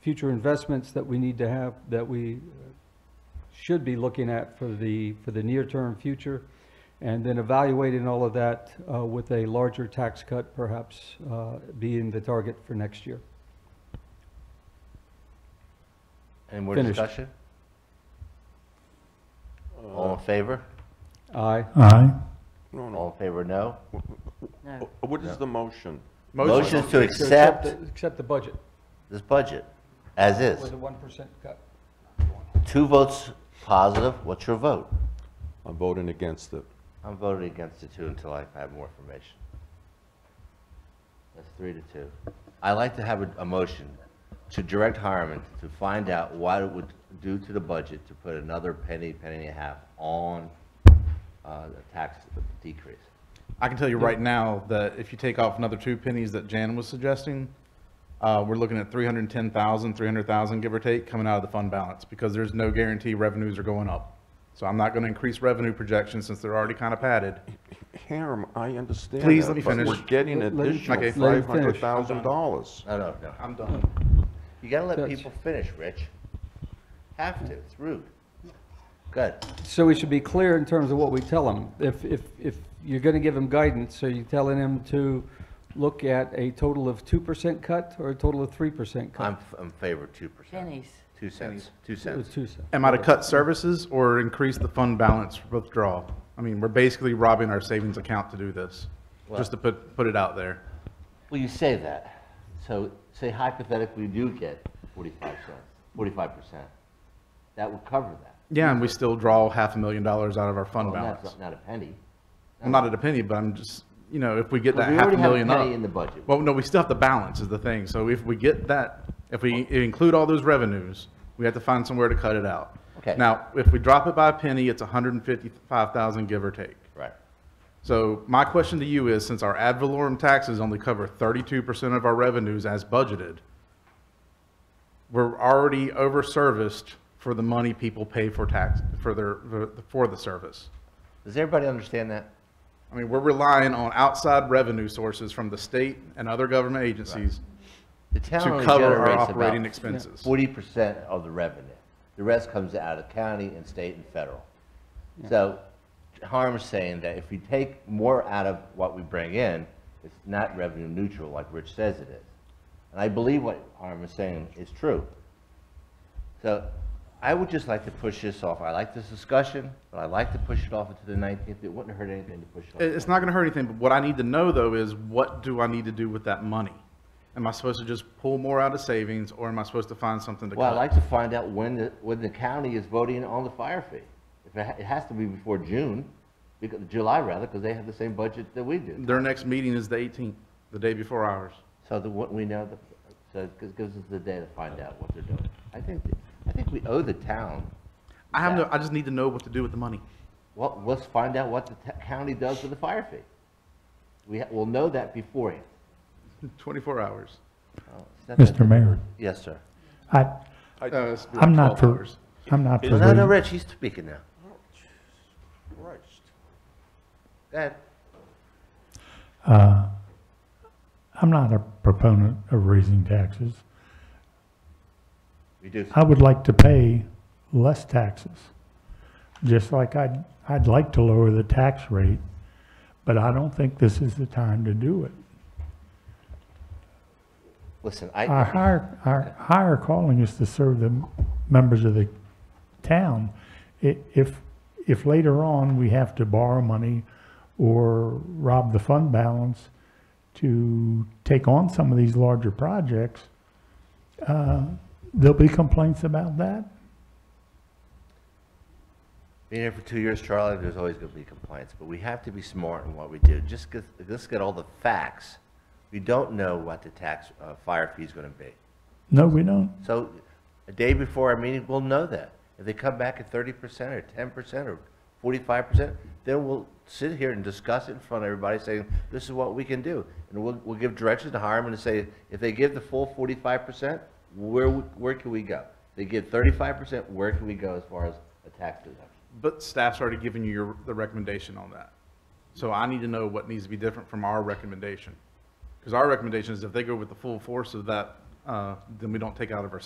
future investments that we need to have, that we should be looking at for the, for the near-term future, and then evaluating all of that uh, with a larger tax cut perhaps uh, being the target for next year. Any more Finished. discussion? All in favor? Aye. Aye. No, no. All in favor, no? No. What is the motion? Motion to accept the- Accept the budget this budget, as with is. a 1% cut. Two votes positive, what's your vote? I'm voting against it. I'm voting against the two until I have more information. That's three to two. I'd like to have a, a motion to direct Harriman to find out what it would do to the budget to put another penny, penny and a half on, uh, the tax decrease. I can tell you right now that if you take off another two pennies that Jan was suggesting, uh, we're looking at 310,000, 300,000, give or take, coming out of the fund balance because there's no guarantee revenues are going up. So I'm not going to increase revenue projections since they're already kind of padded. Harem, I understand Please that, let me but finish. we're getting Let- let him- additional Okay. let him five finish. hundred thousand dollars. No, no, no. I'm done. You gotta let That's- people finish, Rich. Have to, it's rude. Good. So we should be clear in terms of what we tell them. If, if, if you're gonna give them guidance, are you telling them to look at a total of 2% cut or a total of 3% cut? I'm, f- I'm favor two percent. Pennies. Two cents, two It was cents. two cents. Am I to cut services or increase the fund balance withdrawal? I mean, we're basically robbing our savings account to do this, just to put, put it out there. Well, you say that, so say hypothetically you do get forty-five cents, forty-five percent. That would cover that. Yeah, and we still draw half a million dollars out of our fund Well, that's balance. Not not a penny. I'm not at a penny, but I'm just, you know, if we get Well, that we half already a have a million up. penny in the budget. Well, no, we still have the balance is the thing. So if we get that, if we include all those revenues, we have to find somewhere to cut it out. Okay. Now, if we drop it by a penny, it's hundred and fifty-five thousand, give or take. Right. So my question to you is, since our ad valorem taxes only cover thirty-two percent of our revenues as budgeted, we're already over-serviced for the money people pay for tax, for their, for the service. Does everybody understand that? I mean, we're relying on outside revenue sources from the state and other government agencies The town to only cover our generates operating about expenses. forty percent of the revenue. The rest comes out of county and state and federal. So Harm's saying that if we take more out of what we bring in, it's not revenue neutral like Rich says it is. And I believe what Harm is saying is true. So I would just like to push this off. I like this discussion, but I'd like to push it off until the nineteenth. It wouldn't hurt anything to push it off. It- It's not gonna hurt anything, but what I need to know though is what do I need to do with that money? Am I supposed to just pull more out of savings or am I supposed to find something to Well, I'd cut? like to find out when the, when the county is voting on the fire fee. If it, ha- it has to be before June, because, July rather, because they have the same budget that we do. Their next meeting is the eighteenth, the day before ours. So the, what we know, the, so it gi- gives us the day to find out what they're doing. I think, th- I think we owe the town, I have no, I just need to know what to do with the money. well, let's find out what the t- county does with the fire fee. We, ha- we'll know that beforehand. Twenty-four hours. Oh, it's not that Mr. Mayor, difficult. Yes, sir. I, Uh, it's I'm not 12 for, hours. I'm not for, No, no, re- Rich, he's speaking now. Christ. Go ahead. I'm not a proponent of raising taxes. Reduce. I would like to pay less taxes. Just like I'd, I'd like to lower the tax rate, but I don't think this is the time to do it. Listen, I. Our higher, our higher calling is to serve the members of the town. I- If, if later on we have to borrow money or rob the fund balance to take on some of these larger projects, uh, there'll be complaints about that. Being here for two years, Charlie, there's always going to be complaints, but we have to be smart in what we do. Just get, let's get all the facts. We don't know what the tax, uh, fire fee is going to be. No, we don't. So a day before our meeting, we'll know that. If they come back at thirty percent or ten percent or forty-five percent, then we'll sit here and discuss it in front of everybody, saying, this is what we can do. And we'll, we'll give directions to Harriman and say, if they give the full forty-five percent, where, w- where can we go? They give thirty-five percent, where can we go as far as a tax deduction? But staff's already given you your, the recommendation on that. So I need to know what needs to be different from our recommendation. Because our recommendation is if they go with the full force of that, uh, then we don't take out of our savings